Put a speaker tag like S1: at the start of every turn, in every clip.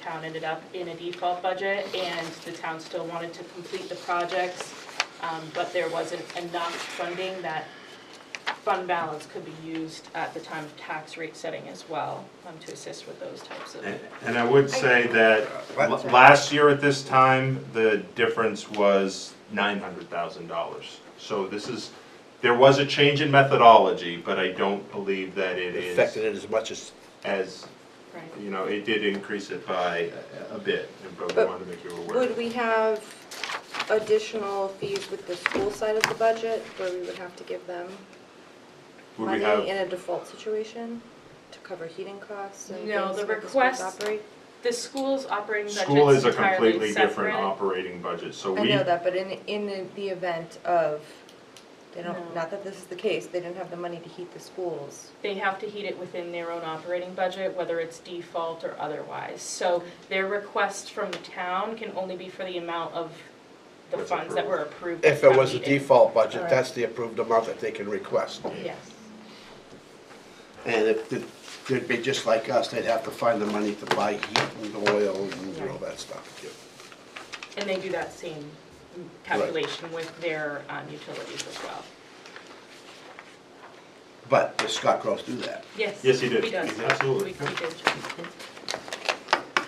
S1: town ended up in a default budget, and the town still wanted to complete the projects, um, but there wasn't enough funding that fund balance could be used at the time of tax rate setting as well, um, to assist with those types of.
S2: And- And I would say that
S3: What?
S2: l- last year at this time, the difference was nine hundred thousand dollars. So this is, there was a change in methodology, but I don't believe that it
S3: affected
S2: is
S3: it as much as,
S2: as,
S1: Right.
S2: you know, it did increase it by a a bit, but we
S4: But
S2: wanted to make you aware.
S4: Would we have additional fees with the school side of the budget where we would have to give them
S2: Would we
S4: money
S2: have-
S4: in a default situation to cover heating costs and
S1: No,
S4: things
S1: the
S4: where schools
S1: request-
S4: operate?
S1: The school's operating budget's
S2: School is a
S1: entirely
S2: completely different
S1: separate.
S2: operating budget, so
S4: I
S2: we,
S4: know that, but in, in the- the event of, they
S1: No.
S4: don't, not that this is the case, they didn't have the money to heat the schools.
S1: They have to heat it within their own operating budget, whether it's default or otherwise. So their request from the town can only be for the amount of the
S2: That's
S1: funds that were approved.
S2: approved.
S1: at
S3: if it
S1: town
S3: was the
S1: meeting.
S3: default budget,
S4: Alright.
S3: that's the approved amount that they can request.
S1: Yes.
S3: And if, the- they'd be just like us, they'd have to find the money to buy heat and oil and all that stuff.
S1: And they do that same calculation with their um, utilities as well.
S3: But does Scott Gross do that?
S1: Yes.
S2: Yes, he did.
S1: He does.
S2: Absolutely.
S1: We- we did.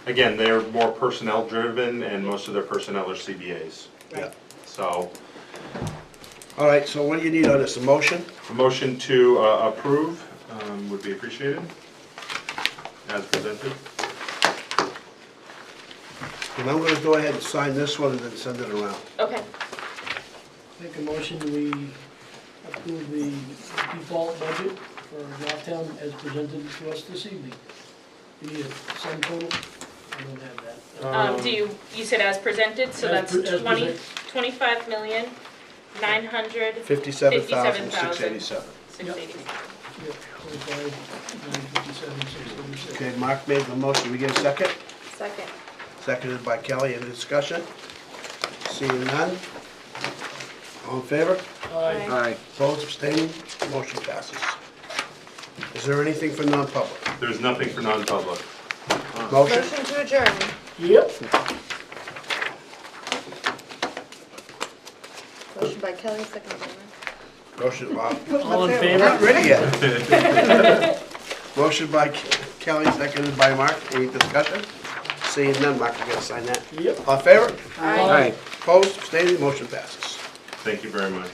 S2: again, they're more personnel driven and most of their personnel are CBAs.
S3: Yeah.
S2: So
S3: All right, so what do you need on this, a motion?
S2: A motion to uh, approve um, would be appreciated, as presented.
S3: And I'm gonna go ahead and sign this one and then send it around.
S1: Okay,
S5: Make a motion, we approve the default budget for Goffstown as presented to us this evening. You need a sum total? I don't have that. Uh,
S1: um, do you, you said as presented, so
S5: As
S1: that's
S5: pre- as
S1: twenty,
S5: present.
S1: twenty-five million, nine hundred,
S3: Fifty-seven thousand, six eighty-seven.
S1: six eighty-seven.
S5: Yeah, Twenty-five, nine fifty-seven, six thirty-six.
S3: Okay, Mark made the motion, we get a second?
S4: Second.
S3: Seconded by Kelly, any discussion? Seeing none? All in favor?
S5: Aye.
S3: Aye. Opposed, abstaining, motion passes. Is there anything for non-public?
S2: There's nothing for non-public.
S3: Motion?
S4: Motion to adjourn.
S5: Yep.
S4: Motion by Kelly, second by Mark.
S3: Motion, Bob.
S5: All in
S3: We're
S5: favor?
S3: not ready yet. Motion by Ke- Kelly, seconded by Mark, any discussion? Seeing none, Mark, you gotta sign that.
S5: Yep.
S3: All in favor?
S5: Aye.
S3: Opposed, abstaining, motion passes.
S2: Thank you very much.